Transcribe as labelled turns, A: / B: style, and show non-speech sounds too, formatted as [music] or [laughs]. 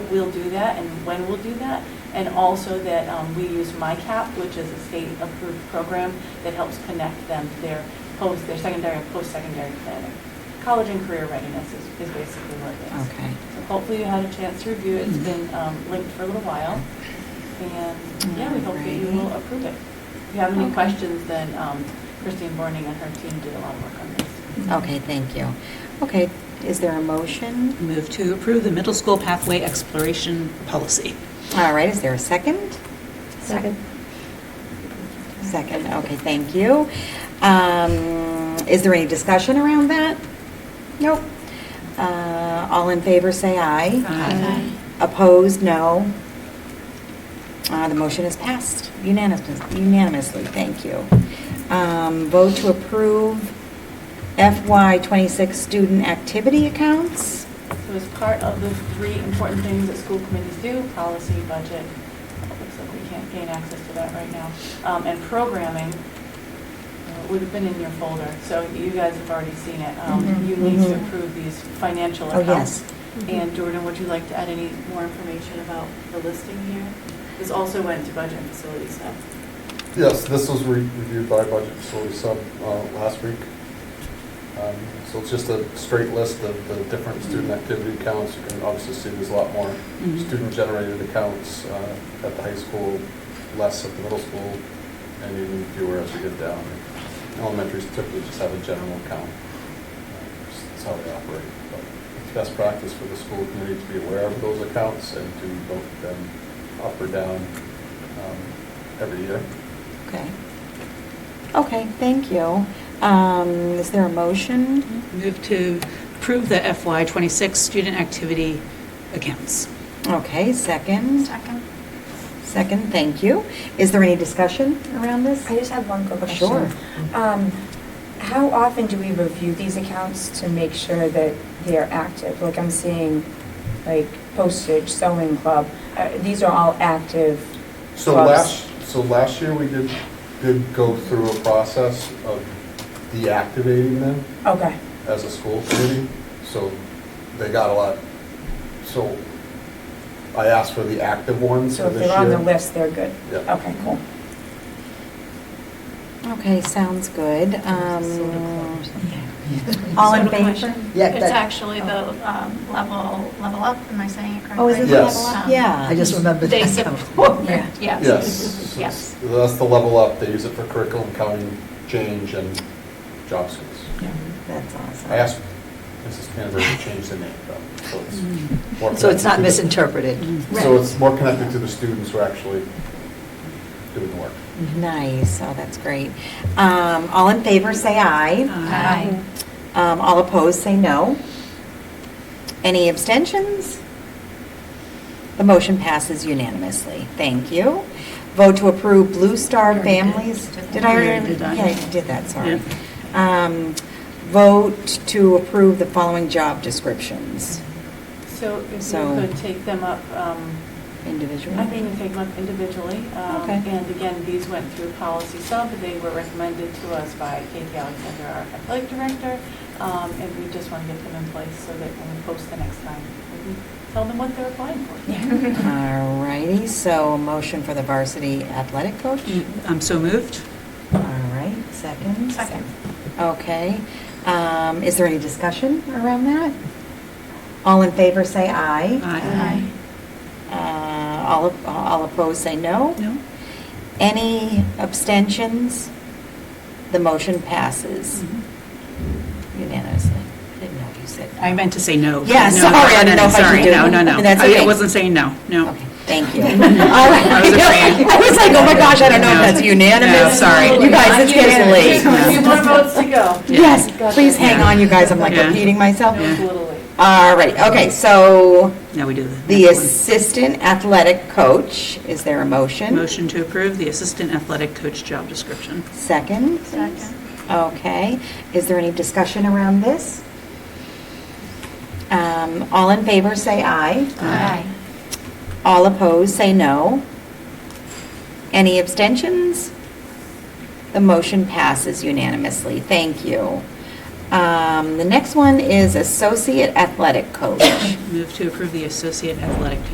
A: we'll do that and when we'll do that. And also that um, we use MyCap, which is a state-approved program that helps connect them to their post, their secondary and post-secondary planning. College and career readiness is, is basically what it is.
B: Okay. Mm-hmm.
A: So hopefully you had a chance to review it. It's been um, linked for a little while. And, yeah, we hope that you will approve it. If you have any
B: Okay.
A: questions, then um, Christine Borning and her team did a lot of work on this.
B: Okay, thank you. Okay, is there a motion?
C: Move to approve the middle school pathway exploration policy.
B: All right, is there a second?
D: Second.
B: Second, okay, thank you. Um, Is there any discussion around that? Nope. Uh, All in favor, say aye.
C: Aye.
B: Opposed, no. Uh, The motion is passed unanimous- unanimously, thank you. Um, Vote to approve FY '26 student activity accounts.
A: So as part of the three important things that school committees do, policy, budget, it looks like we can't gain access to that right now, um, and programming, uh, would have been in your folder, so you guys have already seen it. Um,
D: Mhm.
A: You need to
B: Mhm.
A: approve these financial
B: Oh,
A: accounts.
B: yes.
A: And Jordan, would you like to add any more information about the listing here? This also went to budget and facilities sub.
E: Yes, this was re- reviewed by Budget Facility Sub uh, last week. Um, So it's just a straight list of the different student activity accounts. You can obviously see there's a lot more
C: Mhm.
E: student-generated accounts uh, at the high school, less at the middle school, and even fewer as we get down. Elementaries typically just have a general account. Uh, just- That's how they operate. But It's best practice for the school committee to be aware of those accounts and to vote them up or down um, every year.
B: Okay. Okay, thank you. Um, Is there a motion?
C: Move to approve the FY '26 student activity accounts.
B: Okay, second.
D: Second.
B: Second, thank you. Is there any discussion around this?
D: I just have one quick
B: Oh,
D: question.
B: Sure.
D: Um, How often do we review these accounts to make sure that they're active? Like, I'm seeing, like, postage, sewing club, uh, these are all active
E: So
D: clubs.
E: last, so last year, we did, did go through a process of deactivating them
D: Okay,
E: as a school committee, so they got a lot. So I asked for the active ones
D: so
E: for
D: if
E: this year.
D: they're on the list, they're good?
E: Yeah.
D: Okay, cool.
B: Okay, sounds good. Um, All in
F: Soda
B: favor?
F: question.
G: Yeah,
F: It's
G: that-
F: actually the um, level, level up, am I saying it correctly?
B: Oh, is it
E: the Yes. Level
B: Up?
F: Um,
B: Yeah.
G: I just remembered.
F: They
G: that.
F: support, yes.
G: [laughs]
E: Yes.
F: Yes.
E: So That's the level up, they use it for curriculum counting change and job skills.
B: That's awesome.
E: I asked Mrs. Canterbury to change the name, though, so it's more.
G: Mm-hmm. So it's
E: connected
G: not
E: to the-
G: misinterpreted.
E: So it's more connected to the students who are actually doing the work.
B: Nice, oh, that's great. Um, All in favor, say aye.
F: Aye.
B: Um, All opposed, say no. Any abstentions? The motion passes unanimously. Thank you. Vote to approve Blue Star
F: Already did.
B: Families. Did I
F: Already
B: already?
C: did that.
B: Yeah, you did that, sorry.
C: Yeah.
B: Um, Vote to approve the following job descriptions.
A: So if
B: So-
A: you could take them up, um,
B: Individual?
A: I think we take them up individually. um,
B: Okay.
A: And again, these went through policy sub, they were recommended to us by Katie Alexander, our athletic director, um, and we just want to get them in place so that when we post the next time, we can tell them what they're applying for.
B: All righty, so a motion for the varsity athletic coach?
C: I'm so moved.
B: All right, second?
F: Second.
B: Okay. Um, Is there any discussion around that? All in favor, say aye.
C: Aye.
B: Uh, All op- all opposed, say no.
C: No?
B: Any abstentions? The motion passes unanimously. Didn't know you said.
C: Mm-hmm. I meant to say no.
B: Yeah,
C: No,
B: sorry, I didn't know if I should
C: Sorry,
B: do
C: no,
B: it.
C: no, no.
B: That's
C: I- I
B: okay.
C: wasn't saying no, no.
B: Okay, thank you. All right.
C: [laughs] I was afraid.
B: [laughs] I was like, oh my gosh, I don't know if
C: No.
B: that's unanimous.
C: No, sorry.
B: You guys, it's getting
A: There's a few
B: late.
A: more
C: [laughs]
A: votes to go.
B: Yes, please hang on, you guys, I'm like
C: Yeah.
B: repeating
A: No,
B: myself.
A: it's a little late.
B: All right, okay, so
C: Now we do the
B: the
C: next
B: assistant athletic coach, is there a
C: one.
B: motion?
C: Motion to approve the assistant athletic coach job description.
B: Second?
F: Second.
B: Okay, is there any discussion around this? Um, All in favor, say aye.
F: Aye.
B: All opposed, say no. Any abstentions? The motion passes unanimously. Thank you. Um, The next one is associate athletic coach.
C: Move to approve the associate athletic